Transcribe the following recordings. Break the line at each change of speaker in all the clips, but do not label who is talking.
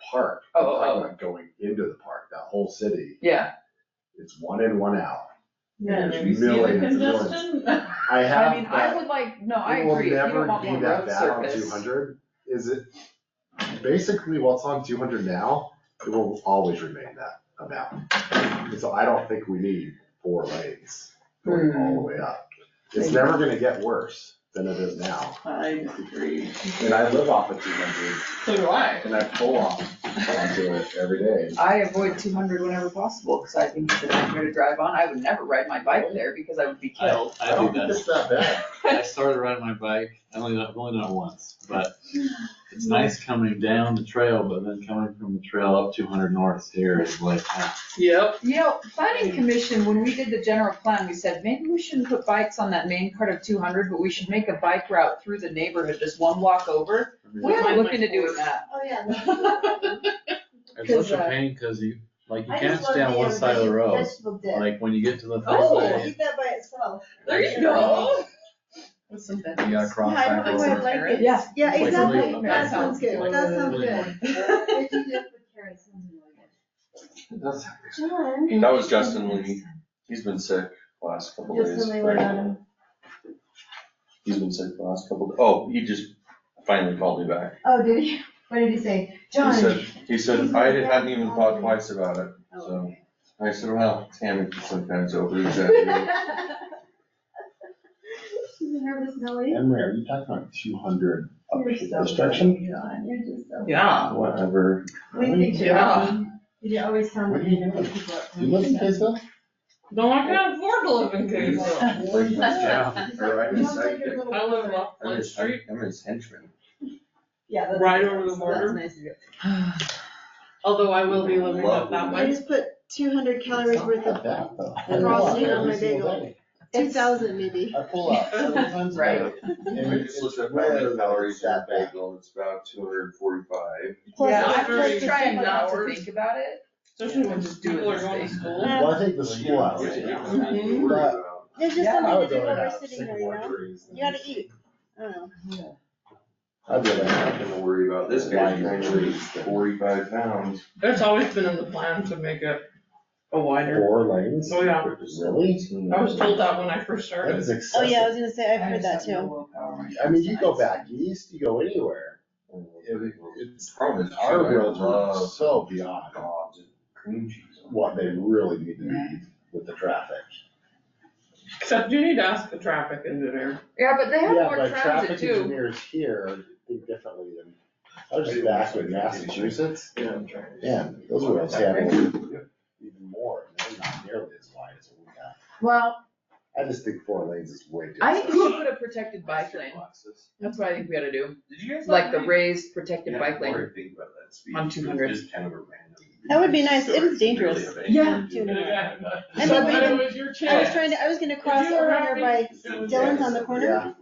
park.
Oh,
I'm talking
oh.
about Going into the park, that whole city,
yeah.
it's one in, one out.
Yeah,
There's
have you seen the
millions of doors.
congestion?
I
I
have.
mean, I
that-
would like, no, I
It will
agree, you
never
don't want
be
more
that
road
bad on
surface.
two hundred, is it? Basically, what's on two hundred now, it will always remain that amount. And So I don't think we need four lanes going all
Hmm.
the way up. It's never gonna get worse than it is now.
I disagree.
And I live off of two hundred
So do I.
and I pull off onto it every day.
I avoid two hundred whenever possible, cause I think it's a nightmare to drive on, I would never ride my bike there because I would be killed.
I, I do that.
it's that bad.
I started riding my bike. I only I've only done it once, but it's nice coming down the trail, but then coming from the trail up 200 north here is like ah,
Yep.
You know, planning commission, when we did the general plan, we said, maybe we shouldn't put bikes on that main part of two hundred, but we should make a bike route through the neighborhood, just one walk over. We
Yeah.
are looking to doing that.
Oh, yeah.
it's such
Cause,
a
uh,
pain because you like you
I
can't
just love
stay on
the
one side of the
everybody
road.
vegetable dip.
Like when you get to the first
Oh.
I
lane,
eat that by itself.
There you go.
With some
you gotta cross
Yeah, I
back
know,
over.
I like it.
Yeah.
Yeah,
Like really-
exactly.
that
That sounds
sounds
good.
like
That sounds
really
good. Veggie dip with carrots sounds really good.
That's-
John.
That was Justin when he, he's been sick the last couple days.
Justin, they went on him.
He's been sick the last couple, oh, he just finally called me back.
Oh, did he? What did he say? John.
He said, he said, I hadn't even thought twice about it. So I said, well, Tammy can sometimes over exaggerate.
She's a nervous Nelly.
Emery, are you talking about two hundred up
You're so
the stretching?
funny, John. You're just so.
Yeah.
Whatever.
We think you're
Yeah.
funny. You always sound
What
like
do you
you know
do?
people are
You live in
funny.
Kaysville?
No, I can't afford to live in Kaysville.
Like,
Yeah.
Or I'm
You
his
sound like your
sidekick.
little
I live
brother.
off
I'm
one
his,
street.
I'm his henchman.
Yeah. that's
Right
nice.
over the
That's
border.
nice of you.
Although I will be living up that
I
way.
just put two hundred calories worth
Not
of,
bad, though.
Crossing
Cross
on
every
my
single
bagel.
day.
two thousand maybe.
I pull up several times a
Right.
day. And
I just looked
it's
at my
rare that
calories
it's
in
that
that
bad.
bagel, it's about two hundred and forty-five.
Plus,
Yeah,
it's
I'm
plus
really
the
trying
summer.
not
to think about it.
Especially when people are going to school.
Well, I think the school hours.
Yeah, you
yeah.
don't have
Mm-hmm.
to worry
But-
about-
There's just
I
Yeah, I
something
would
to do
rather
while we're
have
sitting
single
there, you know?
injuries
You
than-
gotta eat. I don't know.
I'd rather have
I'm gonna worry about this guy, he's only forty-five pounds.
That's always been in the plan to make it a wider.
Four lanes?
Oh, yeah.
Really?
I was told that when I first
That
started.
is
Oh, yeah, I
excessive.
was gonna say, I've heard that too.
I mean, you go back east, you go anywhere. It- It's,
Problem is,
our
I
roads are
love
so beyond
dogs and cream cheese.
what they really need to be with the traffic.
Except you need to ask the traffic engineer.
Yeah, but they have
Yeah,
more
but
transit
traffic
too.
engineers here think differently than, I was just back in Massachusetts. Yeah, those roads have even more, and they're not nearly as wide as we have.
Well,
I just think four lanes is way too.
I think we should put a protected bike lane.
Boxes.
That's what I think we gotta do,
Did you guys?
like
not
the
read-
raised
Yeah,
protected bike
I'm
lane.
already thinking about that speed.
on
It was
200.
just kind of a random-
That would be nice. It is
It's really
dangerous.
amazing.
Yeah.
Dude,
Yeah.
I
So,
mean,
but it
we-
was your
I was
chance.
trying to, I was gonna cross
you were
over here by
having-
Dylan's on the corner,
Yeah.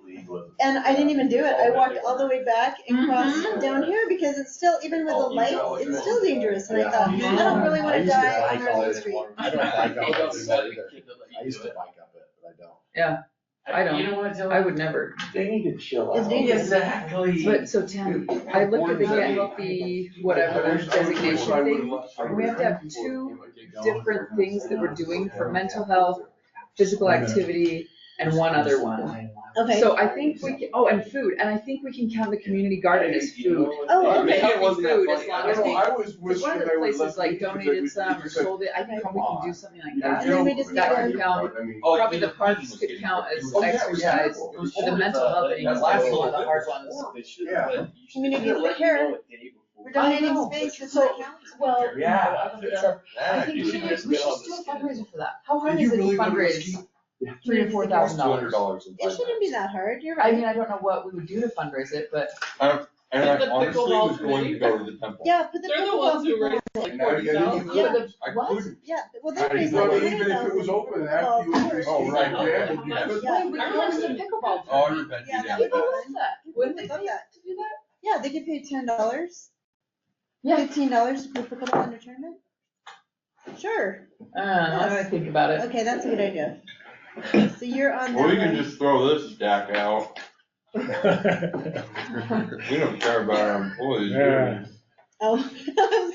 and I didn't even do it. I walked all the way back and crossed
Mhm.
down here, because it's still, even with the
Oh, you
lights,
know,
it's
yeah.
still dangerous, and I thought,
Yeah.
I don't really
I
wanna
used to
die
like
on
all
our
that
street.
I don't like up it either. I used to bike up it, but I don't.
I don't.
You know what, Dylan?
I would never,
They need to chill
It's
out.
dangerous.
Exactly.
but so Tim, I looked at the, get- the whatever designation thing, and we have to have two different things that we're doing for mental health, physical activity, and one other one.
Okay.
So I think we can, oh, and food, and I think we can count the community garden as food.
Oh,
okay.
It wasn't that
Food, as
funny.
long
I
as
don't
we-
know, I was
Cause one
wishing
of the
they would let
places like
people do it,
donated
but
some or
you said,
sold it, I think
Come
we can
on.
do something like
you know,
that.
Maybe we just
Joe,
need to-
right, I mean-
Oh,
Probably
yeah,
the parks
was
could
getting
count
ripped.
as
Oh, yeah, it was
exercise.
terrible. It
The
was horrible.
mental health thing
That's
was
last
one of the
one.
hard ones.
They should
Yeah.
have let- you should
Community
have let
care.
me know a day before.
We're donating space to the county.
Well,
Yeah.
I think we should,
just
we
get on
should do
this
a
kid.
fundraiser for that. How hard is
Did you
it to
really want to go
fundraise
skiing?
three or four thousand dollars?
$200 in
It
five
shouldn't be that hard, you're
I mean,
right.
I don't know what we would do to fundraise it, but
And
The
I honestly
pickleball
was going to go to the temple.
Yeah, but the
They're the
pickleball
ones who
people-
raised like
And now
forty
you gotta
thousand.
do
yeah, the,
I
what?
couldn't.
Yeah, well, they
How do you
raised
run
like
it?
thirty
Even if it was open
thousand.
after you opened, oh, right, yeah,
Yeah.
you could.
Why would
I
you want to
remember.
pickleball?
Oh, you bet
Yeah,
you
that
did.
would
People
be
love
fun.
that. Wouldn't they
People
love
love that.
to do that?
Yeah, they get paid ten dollars.
Yeah.
Fifteen dollars for pickleball in a tournament? Sure,
Uh, I'm gonna think about it.
okay, that's a good idea. So you're on that
Well, we
one.
can just throw this stack out.
Yeah.
We don't care about our employees, do we?
Yeah.
Oh, I was